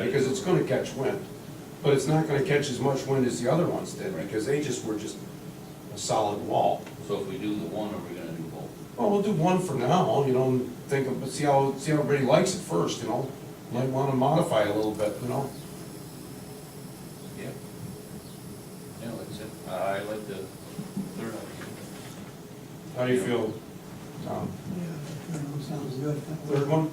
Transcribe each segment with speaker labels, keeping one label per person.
Speaker 1: it's gonna catch wind, but it's not gonna catch as much wind as the other ones did,
Speaker 2: Right.
Speaker 1: because they just were just a solid wall.
Speaker 2: So if we do the one, are we gonna do both?
Speaker 1: Well, we'll do one for now, you know, and think, of- but see how, see how everybody likes it first, you know? Might wanna modify a little bit, you know?
Speaker 2: Yeah. Yeah, that's it. I like the third option.
Speaker 1: How do you feel, Tom?
Speaker 3: Yeah, that third one sounds good.
Speaker 1: Third one?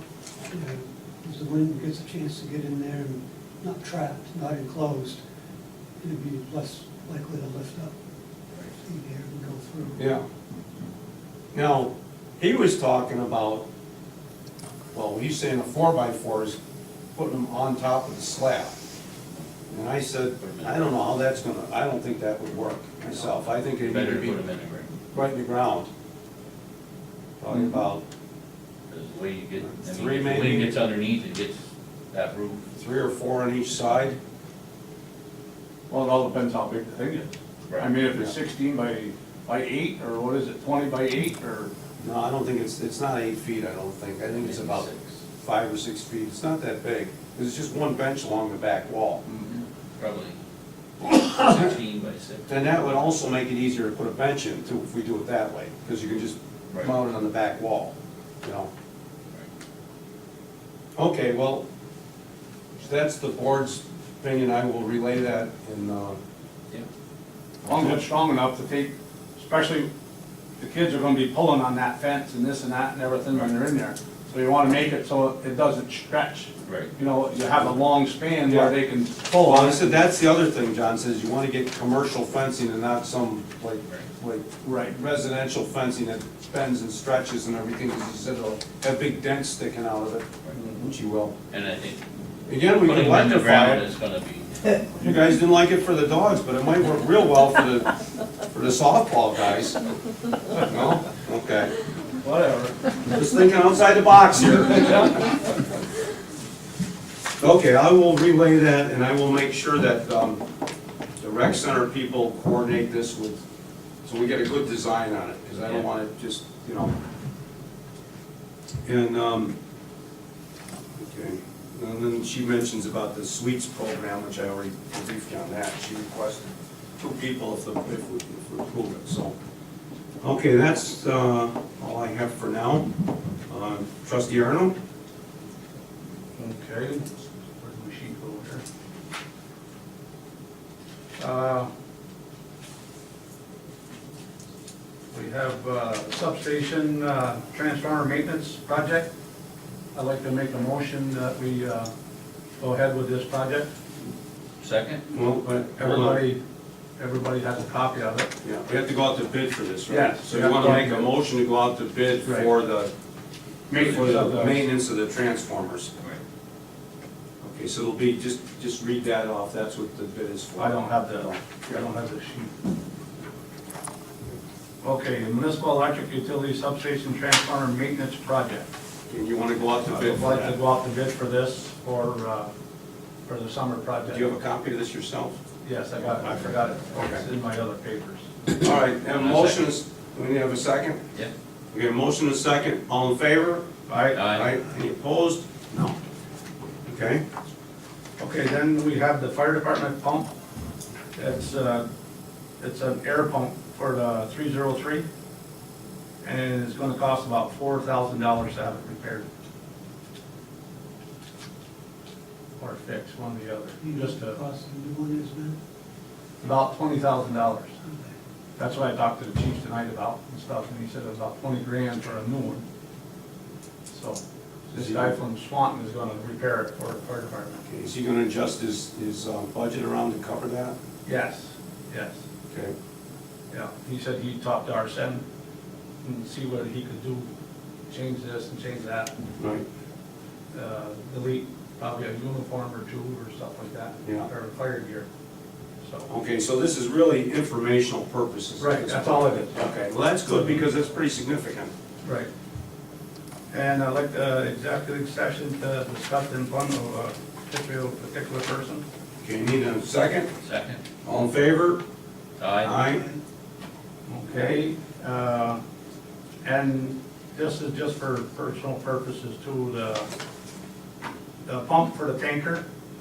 Speaker 3: Because the wind gets a chance to get in there and not trapped, not enclosed, it'd be less likely to lift up, see the air and go through.
Speaker 1: Yeah. Now, he was talking about, well, he's saying a four by four is putting them on top of the slab. And I said, I don't know how that's gonna, I don't think that would work myself. I think it need to
Speaker 2: Better to
Speaker 1: be
Speaker 2: put them in the ring,
Speaker 1: right in the ground. Probably about
Speaker 2: because the way you get, I
Speaker 1: Three
Speaker 2: mean, if the
Speaker 1: maybe.
Speaker 2: wind gets underneath, it gets that roof.
Speaker 1: three or four on each side.
Speaker 4: Well, it all depends how big the thing is. I mean, if it's sixteen by, by eight, or what is it, twenty by eight, or,
Speaker 1: No, I don't think it's, it's not eight feet, I don't think. I think it's
Speaker 2: Maybe
Speaker 1: about
Speaker 2: six.
Speaker 1: five or six feet. It's not that big. It's just one bench along the back wall.
Speaker 2: Probably sixteen by six.
Speaker 1: Then that would also make it easier to put a bench in too, if we do it that way, because you can just
Speaker 2: Right.
Speaker 1: mount it on the back wall, you know?
Speaker 2: Right.
Speaker 1: Okay, well, that's the board's opinion, I will relay that in, uh,
Speaker 2: Yeah.
Speaker 4: as long as it's strong enough to take, especially, the kids are gonna be pulling on that fence and this and that and everything when they're in there. So you wanna make it so it doesn't stretch.
Speaker 2: Right.
Speaker 4: You know, you have a long span where they can
Speaker 2: Oh,
Speaker 4: pull
Speaker 1: well,
Speaker 4: on
Speaker 1: I
Speaker 4: it.
Speaker 1: said, that's the other thing, John says, you wanna get commercial fencing and not some, like, like
Speaker 4: Right.
Speaker 1: residential fencing that bends and stretches and everything, because you said it'll have big dents sticking out of it, which you will.
Speaker 2: And I think
Speaker 1: Again, Mm-hmm. we
Speaker 2: putting
Speaker 1: can
Speaker 2: them in the
Speaker 1: electrify
Speaker 2: ground
Speaker 1: it.
Speaker 2: is gonna be,
Speaker 1: You guys didn't like it for the dogs, but it might work real well for the, for the softball guys. No? Okay.
Speaker 4: Whatever.
Speaker 1: Just thinking outside the box here. Okay, I will relay that and I will make sure that, um, the rec center people coordinate this with, so we get a good design on it, because I don't want it just, you know. And, um, okay, and then she mentions about the suites program, which I already briefed you on that. She requested two people if the, if we if we approve it, so. Okay, that's, uh, all I have for now. Uh, Trustee Arnold?
Speaker 5: Okay, where do we sheet go here? Uh, We have uh, substation uh, transformer maintenance project. I'd like to make a motion that we uh, go ahead with this project.
Speaker 2: second?
Speaker 1: Well, but
Speaker 5: Everybody, everybody has a copy of it.
Speaker 1: Yeah, we have to go out to bid for this, right?
Speaker 5: Yes.
Speaker 1: So you want to make a motion to go out to bid
Speaker 5: Right.
Speaker 1: for the, for
Speaker 5: Maintenance of
Speaker 1: the
Speaker 5: the-
Speaker 1: maintenance of the transformers.
Speaker 2: Right.
Speaker 1: Okay, so it'll be, just, just read that off, that's what the bid is for.
Speaker 5: I don't have the, I don't have the sheet. Okay, municipal electric utility substation transformer maintenance project.
Speaker 1: And you want to go out to bid
Speaker 5: I'd
Speaker 1: for
Speaker 5: like to
Speaker 1: that?
Speaker 5: go out to bid for this for, uh, for the summer project.
Speaker 1: Do you have a copy of this yourself?
Speaker 5: Yes, I got it, I forgot it. It's in my other papers.
Speaker 1: All right, have a
Speaker 2: And a
Speaker 1: motion, is- we need to have a second?
Speaker 2: Yeah.
Speaker 1: We have a motion and a second, all in favor?
Speaker 5: Aye.
Speaker 1: Uh,
Speaker 2: Aye.
Speaker 1: Any opposed? No. Okay,
Speaker 5: Okay, then we have the fire department pump. It's, uh, it's an air pump for the three zero three. And it's gonna cost about four thousand dollars to have it repaired. Or fixed, one or the other,
Speaker 3: You know
Speaker 5: just
Speaker 3: what the
Speaker 5: uh,
Speaker 3: cost of the new one is now?
Speaker 5: about twenty thousand dollars.
Speaker 3: Okay.
Speaker 5: That's what I talked to the chief tonight about and stuff, and he said it was about twenty grand for a new one. So, this guy from Swanton is gonna repair it for the fire department.
Speaker 1: Okay, is he going to adjust his, his uh, budget around to cover that?
Speaker 5: Yes, yes,
Speaker 1: Okay.
Speaker 5: yeah. He said he'd talk to Arsen and see what he could do, change this and change that,
Speaker 1: Right,
Speaker 5: uh, delete probably a uniform or two or stuff like that.
Speaker 1: Yeah. Oh.
Speaker 5: Or fire gear, so.
Speaker 1: okay, so this is really informational purposes.
Speaker 5: Right, that's all it is.
Speaker 1: Okay, well, that's good, because that's pretty significant.
Speaker 5: Right. And I'd like the executive session to discuss in front of a particular, particular person.
Speaker 1: Okay, you need a second?
Speaker 2: Second?
Speaker 1: All in favor?
Speaker 2: Aye.
Speaker 5: Okay, uh, and this is just for personal purposes too, the, the pump for the tanker